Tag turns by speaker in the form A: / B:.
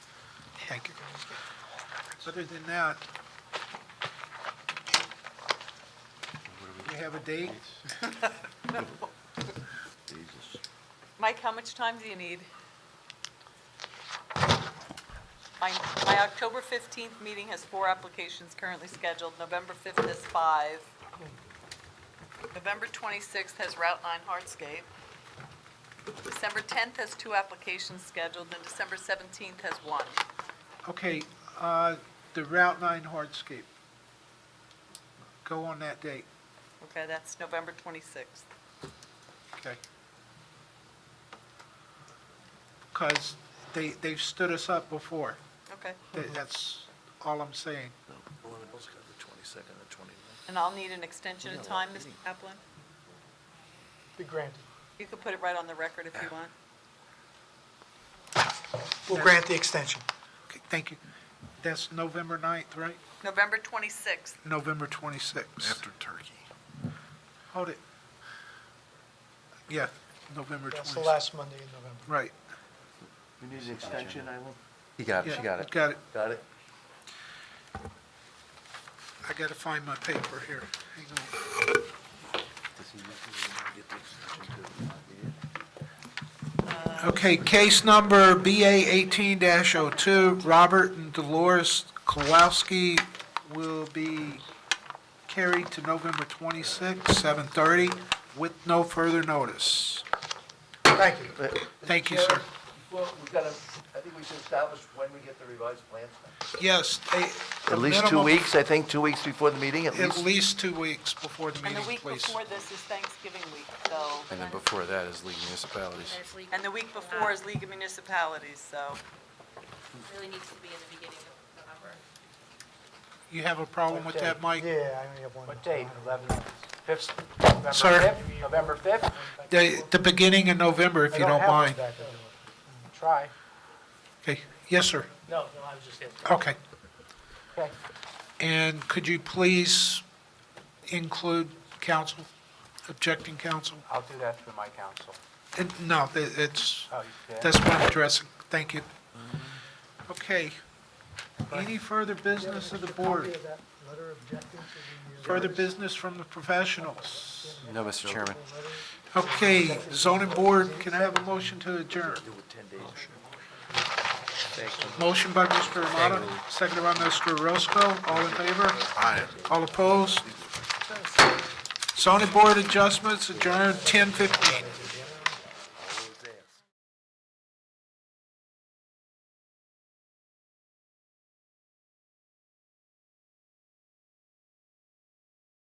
A: Thank you. Other than that, we have a date?
B: Mike, how much time do you need? My, my October 15th meeting has four applications currently scheduled. November 5th is five. November 26th has Route 9 Hardscape. December 10th has two applications scheduled, and December 17th has one.
A: Okay, uh, the Route 9 hardscape. Go on that date,
B: Okay, that's November 26th.
A: okay? Because they, they've stood us up before.
B: Okay.
A: Th- That's all I'm saying.
C: Well, we also got the twenty-second and twenty-ninth.
B: And I'll need an extension of time, Ms. Kaplan?
D: Be granted.
B: You could put it right on the record if you want.
D: We'll grant the extension.
A: Okay, Thank you. That's November 9th, right?
B: November 26th.
A: November 26th.
C: turkey.
A: Hold it. Yeah, November 26th.
D: That's the last Monday in November.
A: Right.
E: You need an extension, Eileen? He got it,
A: Yeah,
E: she got it.
A: Got it.
E: Got it?
A: I gotta find my paper here. Hang on. Uh, Okay, case number BA eighteen 2 Robert and Dolores Kowalski will be carried to November twenty-sixth, seven thirty, with no further notice.
D: Thank you.
A: Thank you, sir.
E: Well, we've got to, I think we should establish when we get the revised plans.
A: Yes, they. a
E: At least two
A: minimum-
E: weeks, I think, two weeks before the meeting, at
A: At
E: least.
A: least two weeks before the
B: And
A: meeting,
B: the week
A: please.
B: before this is Thanksgiving week, so,
F: And then before that is League of Municipalities.
G: There's legal,
B: and the week before is League of Municipalities, so.
G: really needs to be in the beginning of November.
A: You have a problem with that, Mike?
D: Yeah, I only have one.
H: What date? 11th, 5th? November
A: Sir?
H: 5th? November 5th?
A: The, the beginning of November, if you don't mind.
D: I have one back there.
H: Mm, Try.
A: Okay, yes, sir,
H: No, no, I was just asking.
A: okay.
H: Okay.
A: And could you please include counsel, objecting counsel?
H: I'll do that through my counsel.
A: And- No, it- it's,
H: Oh, you did?
A: that's what I'm addressing, thank you. Okay, any further business of the board?
D: Copy of that letter objecting to
A: Further business from the professionals?
F: No, Mr. Chairman.
A: Okay, zoning board, can I have a motion to adjourn? Motion by Mr. Armato, seconded by Mr. Roscoe, all in favor? Aye. All opposed? Zoning board adjustments adjourned ten fifteen.